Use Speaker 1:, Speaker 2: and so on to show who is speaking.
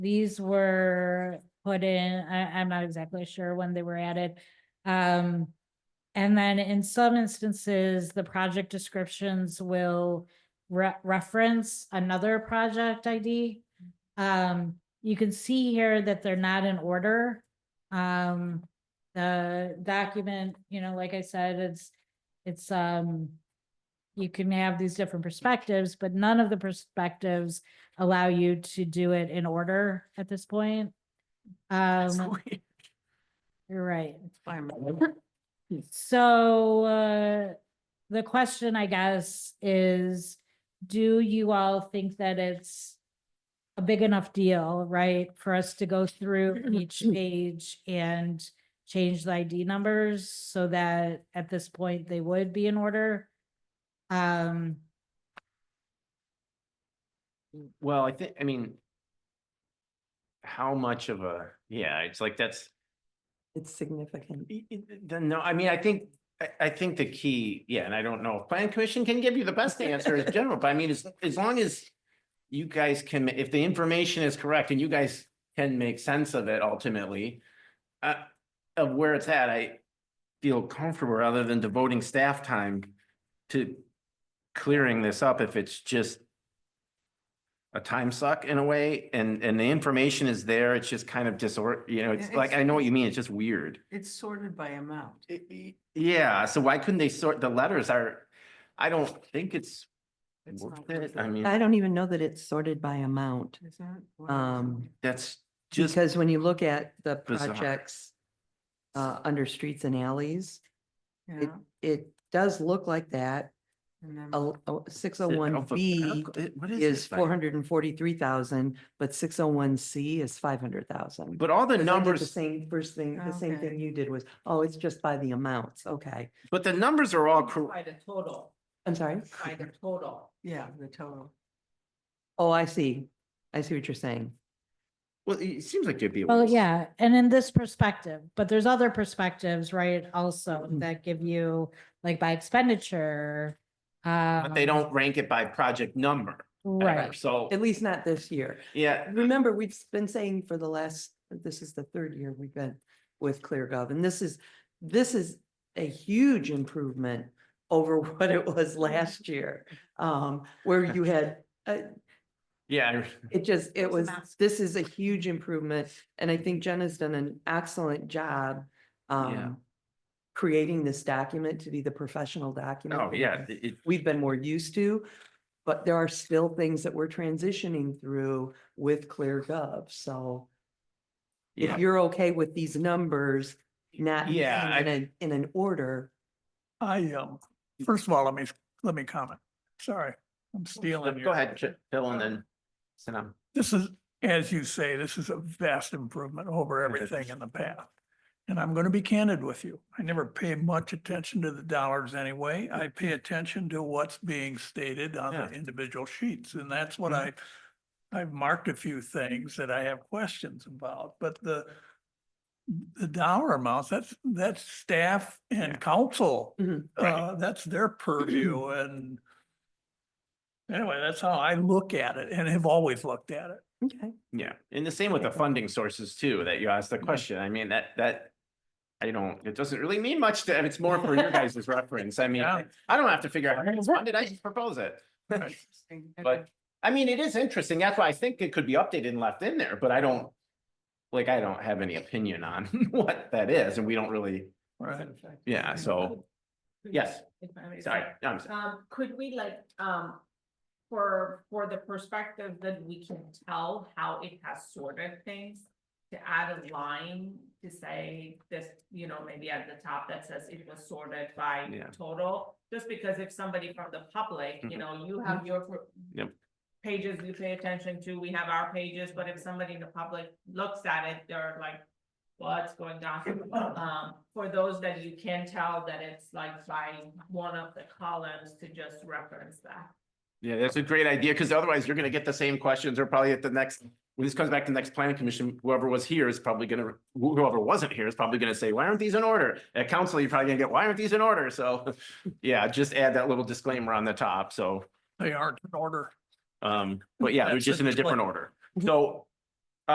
Speaker 1: These were put in, I, I'm not exactly sure when they were added. Um, and then in some instances, the project descriptions will re- reference another project ID. Um, you can see here that they're not in order. Um, the document, you know, like I said, it's, it's, um, you can have these different perspectives, but none of the perspectives allow you to do it in order at this point. Um, you're right. So, uh, the question, I guess, is, do you all think that it's a big enough deal, right, for us to go through each page and change the ID numbers so that at this point they would be in order? Um,
Speaker 2: Well, I think, I mean. How much of a, yeah, it's like that's,
Speaker 3: It's significant.
Speaker 2: i- i- the- no, I mean, I think, I, I think the key, yeah, and I don't know if plan commission can give you the best answer as general, but I mean, as, as long as. You guys can, if the information is correct and you guys can make sense of it ultimately. Uh, of where it's at, I feel comfortable rather than devoting staff time to clearing this up if it's just. A time suck in a way, and, and the information is there, it's just kind of disor, you know, it's
Speaker 3: Yeah,
Speaker 2: like,
Speaker 3: it's-
Speaker 2: I know what you mean, it's just weird.
Speaker 3: It's sorted by amount.
Speaker 2: Y- y- Yeah, so why couldn't they sort, the letters are, I don't think it's
Speaker 3: It's
Speaker 2: worth
Speaker 3: not
Speaker 2: it,
Speaker 3: worth
Speaker 2: I
Speaker 3: it.
Speaker 2: mean,
Speaker 4: I don't even know that it's sorted by amount,
Speaker 3: Is that? what it is?
Speaker 4: um,
Speaker 2: that's just,
Speaker 4: because when you look at the
Speaker 2: bizarre.
Speaker 4: projects uh, under streets and alleys,
Speaker 3: Yeah.
Speaker 4: it does look like that.
Speaker 3: and then-
Speaker 4: Six oh
Speaker 2: it-
Speaker 4: one
Speaker 2: alpha-
Speaker 4: B
Speaker 2: alpha- it- eh, what is
Speaker 4: is
Speaker 2: this thing?
Speaker 4: four hundred and forty-three thousand, but six oh one C is five hundred thousand.
Speaker 2: But all the
Speaker 4: The
Speaker 2: numbers,
Speaker 4: same, first thing, the same
Speaker 3: Okay.
Speaker 4: thing you did was, oh, it's just by the amounts, okay.
Speaker 2: but the numbers are all correct.
Speaker 5: By the total,
Speaker 4: I'm sorry?
Speaker 5: by the total.
Speaker 3: Yeah, the total.
Speaker 4: Oh, I see. I see what you're saying.
Speaker 2: Well, it seems like it'd be. a
Speaker 1: well,
Speaker 2: waste.
Speaker 1: Oh, yeah, and in this perspective, but there's other perspectives, right, also
Speaker 2: Mm-hmm.
Speaker 1: that give you, like, by expenditure. um,
Speaker 2: But they don't rank it by project number. ever,
Speaker 1: Right.
Speaker 2: So,
Speaker 4: At least not this year.
Speaker 2: yeah,
Speaker 4: remember, we've been saying for the last, this is the third year we've been with ClearGov, and this is, this is a huge improvement over what it was last year, um, where you had, uh,
Speaker 2: yeah,
Speaker 4: it just, it was,
Speaker 5: was massive.
Speaker 4: this is a huge improvement, and I think Jen has done an excellent job, um, creating this document to be the professional document.
Speaker 2: oh,
Speaker 4: that
Speaker 2: yeah, it- it-
Speaker 4: we've been more used to. But there are still things that we're transitioning through with ClearGov, so
Speaker 2: yeah.
Speaker 4: if you're okay with these numbers, not being
Speaker 2: Yeah, I-
Speaker 4: in a, in an order.
Speaker 6: I, um, first of all, let me, let me comment. Sorry, I'm stealing your.
Speaker 2: Go ahead, Ch- Phil, and then, Sanam.
Speaker 6: This is, as you say, this is a vast improvement over everything in the past. And I'm going to be candid with you. I never pay much attention to the dollars anyway. I pay attention to what's being stated on
Speaker 2: Yeah. Mm-hmm.
Speaker 6: the individual sheets. And that's what I, I've marked a few things that I have questions about, but the, the dollar amounts, that's, that's staff
Speaker 2: Yeah. Mm-hmm.
Speaker 6: and council.
Speaker 4: Mhm.
Speaker 2: Right.
Speaker 6: Uh, that's their purview and anyway, that's how I look at it and have always looked at it.
Speaker 4: Okay.
Speaker 2: Yeah, and the same with the funding sources too, that you asked the question. I mean, that, that. I don't, it doesn't really mean much to, it's more for your guys' reference. I mean,
Speaker 6: Yeah.
Speaker 2: I don't have to figure out, when did I just propose it?
Speaker 6: Right.
Speaker 3: Interesting.
Speaker 2: But, I mean, it is interesting. That's why I think it could be updated and left in there, but I don't. Like, I don't have any opinion on what that is, and we don't really,
Speaker 6: Right.
Speaker 2: yeah, so, yes,
Speaker 5: If I may say.
Speaker 2: sorry, I'm sorry.
Speaker 5: Um, could we like, um, for, for the perspective that we can tell how it has sorted things? To add a line to say this, you know, maybe at the top that says it was sorted by
Speaker 2: Yeah.
Speaker 5: total. Just because if somebody from the public, you
Speaker 2: Mhm.
Speaker 5: know, you have your. per-
Speaker 2: Yep.
Speaker 5: Pages you pay attention to, we have our pages, but if somebody in the public looks at it, they're like, what's going on? Um, for those that you can tell that it's like by one of the columns to just reference that.
Speaker 2: Yeah, that's a great idea, because otherwise you're gonna get the same questions or probably at the next, when this comes back to the next planning commission, whoever was here is probably gonna, whoever wasn't here is probably gonna say, why aren't these in order? At council, you're probably gonna get, why aren't these in order? So, yeah, just add that little disclaimer on the top, so.
Speaker 6: They aren't in order.
Speaker 2: Um, but yeah, they're
Speaker 6: That's
Speaker 2: just
Speaker 6: a
Speaker 2: in a different
Speaker 6: disclaimer.
Speaker 2: order. So